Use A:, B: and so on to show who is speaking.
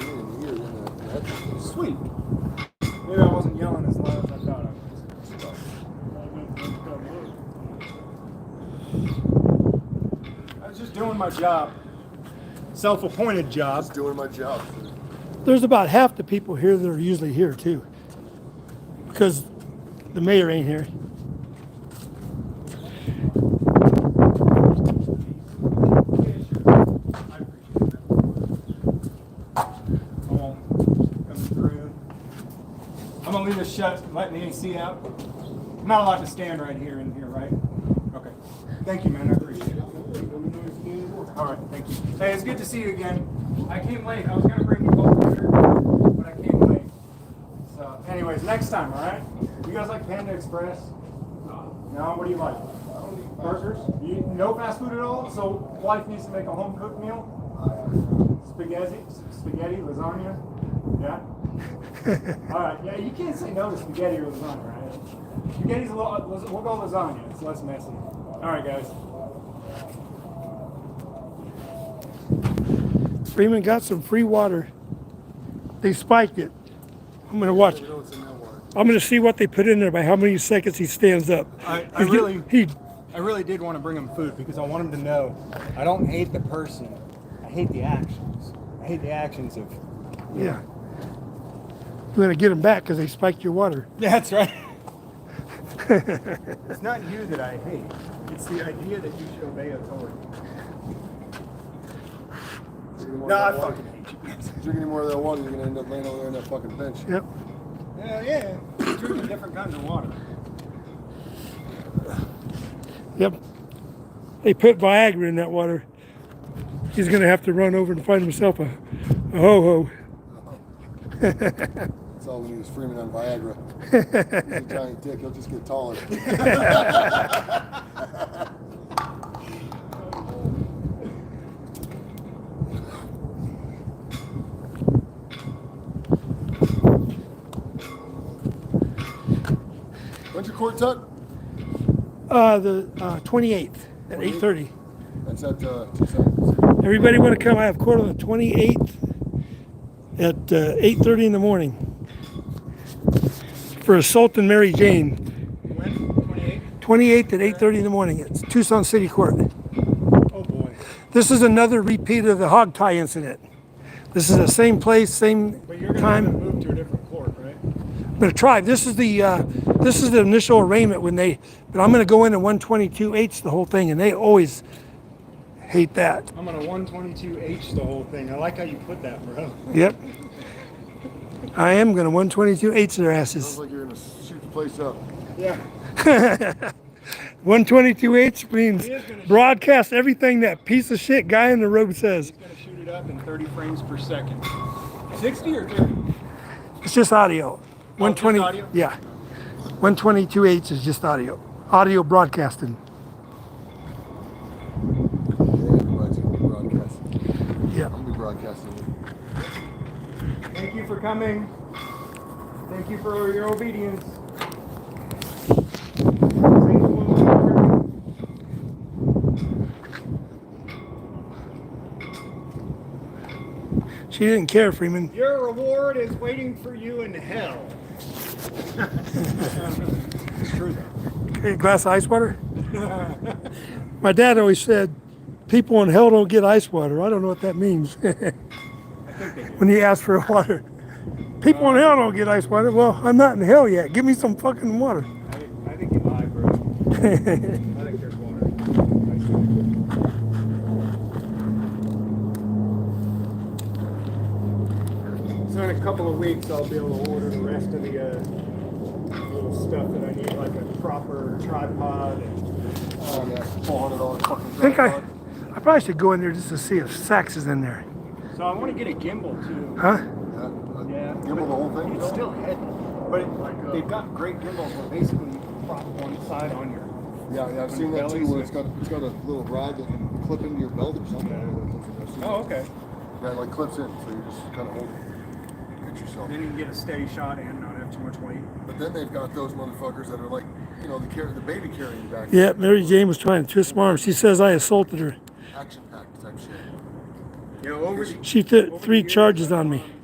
A: good. Sweet. Maybe I wasn't yelling as loud as I thought I was. I was just doing my job. Self-appointed job.
B: Just doing my job.
C: There's about half the people here that are usually here too. Because the mayor ain't here.
A: I won't come through. I'm gonna leave this shut, letting the AC out. I'm not allowed to stand right here in here, right? Okay. Thank you, man. I appreciate it. All right, thank you. Hey, it's good to see you again. I came late. I was gonna bring you both here, but I came late. So, anyways, next time, all right? You guys like Panda Express? No. What do you like? Burgers? You, no fast food at all. So wife needs to make a home cooked meal. Spaghetti, spaghetti, lasagna. Yeah. All right. Yeah, you can't say no to spaghetti or lasagna, right? Spaghetti's a little. We'll go lasagna. It's less messy. All right, guys.
C: Freeman got some free water. They spiked it. I'm gonna watch.
B: You know what's in that water.
C: I'm gonna see what they put in there by how many seconds he stands up.
A: I,
C: He's get- he
A: I really did want to bring him food because I want him to know I don't hate the person. I hate the actions. I hate the actions of.
C: yeah. You're gonna get him back because they spiked your water.
A: That's right. it's not you that I hate. It's the idea that you should obey authority.
B: Drink any more
A: No, I
B: of that water.
A: fucking hate you.
B: Drink any more of that water, you're gonna end up laying over there on that fucking bench.
C: Yep.
A: Yeah, yeah. Drinking different kinds of water.
C: Yep. They put Viagra in that water. He's gonna have to run over and find himself a, a ho ho.
B: That's all we need is Freeman on Viagra. He's a giant dick. He'll just get taller. When's your court, Tut?
C: Uh, the uh, 28th at 8:30.
B: That's at uh, two seconds.
C: Everybody want to come? I have court on the 28th at uh, 8:30 in the morning for assault and Mary Jane.
A: When? 28?
C: 28th at 8:30 in the morning. It's Tucson City Court.
A: Oh boy.
C: This is another repeat of the hog tie incident. This is the same place, same
A: But you're gonna have to
C: time.
A: move to a different court, right?
C: But a tribe. This is the uh, this is the initial arraignment when they. But I'm going to go into 122H the whole thing, and they always hate that.
A: I'm gonna 122H the whole thing. I like how you put that, bro.
C: Yep. I am going to 122 eights their asses.
B: Sounds like you're gonna shoot the place up.
A: Yeah.
C: 122 eights means
A: He is gonna-
C: broadcast everything that piece of shit guy in the robe says.
A: He's gonna shoot it up in 30 frames per second. 60 or 30?
C: It's just audio. 120.
A: audio?
C: Yeah. 122 eights is just audio. Audio broadcasting.
B: Yeah, everybody's gonna be broadcasting.
C: Yeah.
B: I'm gonna be broadcasting.
A: Thank you for coming. Thank you for your obedience.
C: She didn't care, Freeman.
A: Your reward is waiting for you in hell. it's true though.
C: A glass of ice water? My dad always said, people in hell don't get ice water. I don't know what that means. when you ask for water, people in hell don't get ice water. Well, I'm not in hell yet. Give me some fucking water.
A: I think, I think you lie, bro. I think there's water. So in a couple of weeks, I'll be able to order the rest of the uh, little stuff that I need, like a proper tripod and.
B: Oh, yeah, $400 fucking
C: I think I,
B: tripod.
C: I probably should go in there just to see if Sax is in there.
A: So I want to get a gimbal too.
C: Huh?
B: Yeah. uh,
A: Yeah.
B: Give him the whole thing.
A: It's still heavy, but it, they've got great gimbals where basically you can prop one side on your
B: Yeah, yeah, I've seen that too, where it's got, it's got a little rod that can clip into your belt or something. I don't know what it looks like. I've seen
A: Oh, okay.
B: that. Yeah, it, like clips in, so you just kind of hold it. Get yourself.
A: Then you can get a steady shot and not have too much weight.
B: But then they've got those motherfuckers that are like, you know, the car- the baby carrying back.
C: Yeah, Mary Jane was trying to twist my arm. She says I assaulted her.
B: Action packed type shit.
A: You know, over the
C: She th- three charges on me.